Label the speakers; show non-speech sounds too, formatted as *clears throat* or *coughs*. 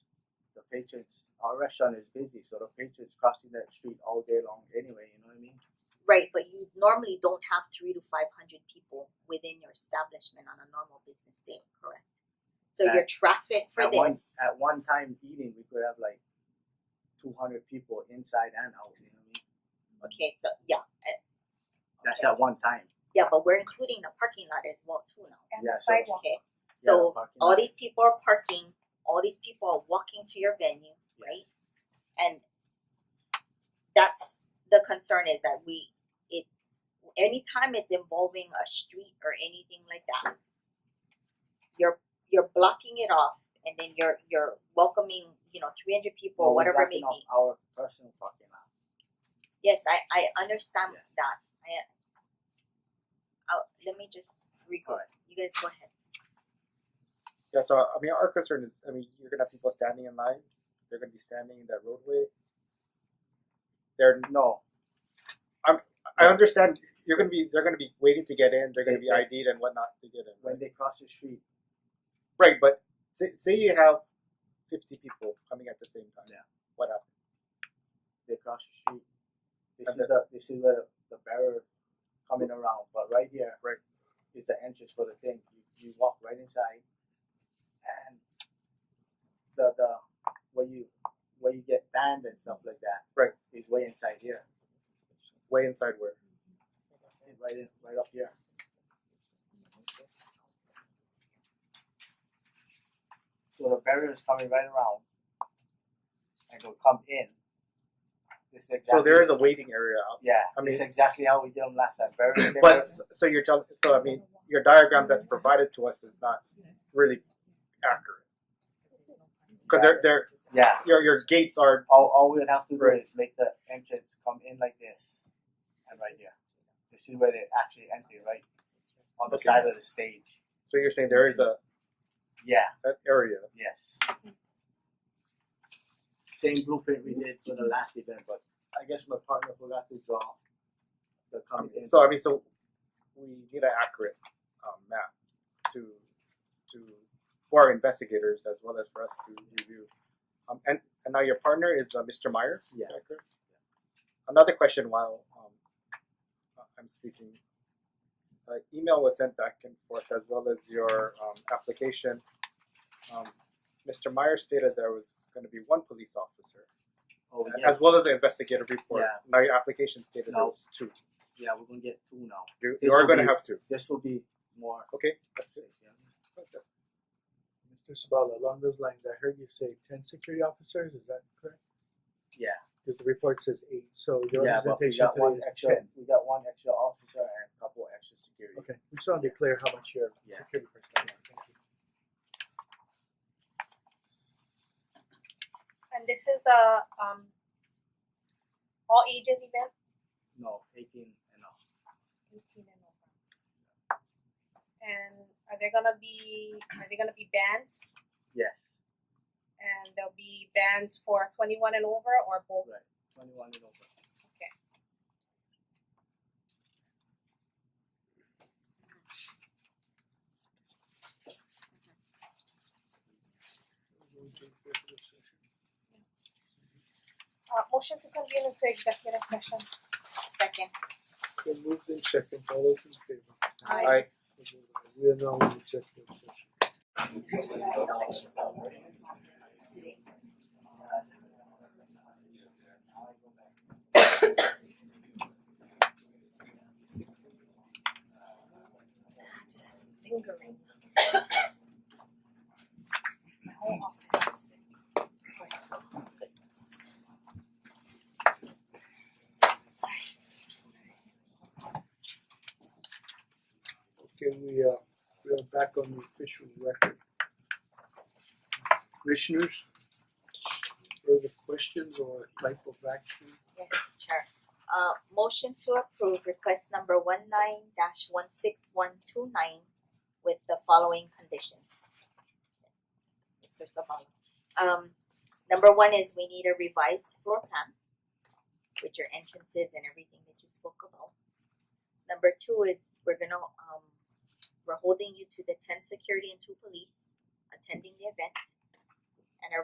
Speaker 1: patrons. Our restaurant is busy, so the patrons crossing that street all day long anyway. You know what I mean?
Speaker 2: Right, but you normally don't have three to five hundred people within your establishment on a normal business day, correct? So your
Speaker 1: At-
Speaker 2: traffic for
Speaker 1: at
Speaker 2: this,
Speaker 1: one at one time eating, we could have like two hundred people inside and out. You know what I mean?
Speaker 2: okay, so yeah, eh,
Speaker 1: That's
Speaker 2: okay.
Speaker 1: at one time.
Speaker 2: yeah, but we're including the parking lot as well too now.
Speaker 3: and
Speaker 1: Yeah,
Speaker 3: the
Speaker 1: so-
Speaker 3: sidewalk.
Speaker 2: Okay,
Speaker 1: Yeah, the
Speaker 2: so
Speaker 1: parking
Speaker 2: all
Speaker 1: lot.
Speaker 2: these people are parking, all these people are walking to your venue,
Speaker 1: Yes.
Speaker 2: right? And that's the concern is that we it anytime it's involving a street or anything like that, you're you're blocking it off and then you're you're welcoming, you know, three hundred people,
Speaker 1: Well, we're
Speaker 2: whatever it may
Speaker 1: blocking off
Speaker 2: be.
Speaker 1: Our personal parking lot.
Speaker 2: Yes, I I understand
Speaker 1: Yeah.
Speaker 2: that. I I'll, let me just record.
Speaker 1: Alright.
Speaker 2: You guys go ahead.
Speaker 4: Yeah, so I mean, our concern is, I mean, you're gonna have people standing in line. They're gonna be standing in that roadway. They're,
Speaker 1: No,
Speaker 4: I understand you're gonna be, they're gonna be waiting to get in. They're gonna
Speaker 1: They-
Speaker 4: be
Speaker 1: they-
Speaker 4: ID'd and whatnot to get in.
Speaker 1: when they cross the street,
Speaker 4: Right, but say, say you have fifty people coming at the same time.
Speaker 1: Yeah.
Speaker 4: What happens?
Speaker 1: they cross the street. They
Speaker 4: And
Speaker 1: see the they see where the barrier coming around, but right here,
Speaker 4: Right.
Speaker 1: is the entrance for the thing. You, you walk right inside, and the the where you where you get banned and stuff like that,
Speaker 4: Right.
Speaker 1: is way inside here,
Speaker 4: Way inside where?
Speaker 1: right in right up here. So the barrier is coming right around, and will come in. This is exactly
Speaker 4: So there is a waiting area out.
Speaker 1: yeah,
Speaker 4: I mean-
Speaker 1: it's exactly how we did them last time. *clears throat* Very
Speaker 4: But so you're telling, so I mean, your diagram that's provided to us is not really accurate because they're they're
Speaker 1: yeah.
Speaker 4: your your gates are
Speaker 1: All, all we'd have to do
Speaker 4: Right.
Speaker 1: is make the entrance come in like this, and right here. This is where they actually enter, right on the
Speaker 4: Okay.
Speaker 1: side of the stage.
Speaker 4: so you're saying there is a
Speaker 1: Yeah.
Speaker 4: an area.
Speaker 1: Yes. Same blueprint we did for the last event, but I guess my partner forgot to draw the
Speaker 4: Um,
Speaker 1: coming in.
Speaker 4: so I mean, so we need an accurate um, map to to for our investigators as well as for us to review. Um, and and now your partner is uh, Mr. Meyer.
Speaker 1: Yeah.
Speaker 4: Is that correct? Another question while um, uh, I'm speaking. Uh, email was sent back and forth as well as your um, application. Um, Mr. Meyer stated there was going to be one police officer,
Speaker 1: oh
Speaker 4: a-
Speaker 1: yeah,
Speaker 4: as well as the investigative report.
Speaker 1: Yeah.
Speaker 4: Now your application stated there
Speaker 1: No.
Speaker 4: was two.
Speaker 1: yeah, we're gonna get two now.
Speaker 4: You,
Speaker 1: This
Speaker 4: you are
Speaker 1: will
Speaker 4: going to
Speaker 1: be-
Speaker 4: have to.
Speaker 1: This will be more.
Speaker 4: Okay, that's good.
Speaker 5: Mr. Sabala, along those lines, I heard you say ten security officers, is that correct?
Speaker 1: Yeah.
Speaker 5: Because the report says eight, so your
Speaker 1: yeah, but we
Speaker 5: representation
Speaker 1: got one
Speaker 5: today is
Speaker 1: extra.
Speaker 5: ten.
Speaker 1: We got one extra officer and a couple extra security.
Speaker 5: Okay, we just wanted to clear how much your
Speaker 1: Yeah.
Speaker 5: security personnel are, thank you.
Speaker 3: And this is a um all ages event,
Speaker 1: No, eighteen and up.
Speaker 3: eighteen and over. And are there gonna be are there gonna be bands
Speaker 1: Yes,
Speaker 3: and there'll be bands for twenty one and over or both?
Speaker 1: right. Twenty-one and over.
Speaker 3: Uh motion to convene into executive session.
Speaker 2: Second.
Speaker 5: Then moved in second, all those in favor?
Speaker 2: Aye.
Speaker 4: Aye.
Speaker 5: We are now in executive session.
Speaker 3: Just lingering. *coughs* My whole office is sick.
Speaker 5: Okay, we uh, we are back on the official record. Commissioners, further questions or type of action?
Speaker 2: Yes, Chair. Uh, motion to approve request number one nine dash one six one two nine with the following conditions. Mister Sabala. Um, number one is we need a revised floor plan with your entrances and everything that you spoke about. Number two is we're gonna, um, we're holding you to the ten security and two police attending the event.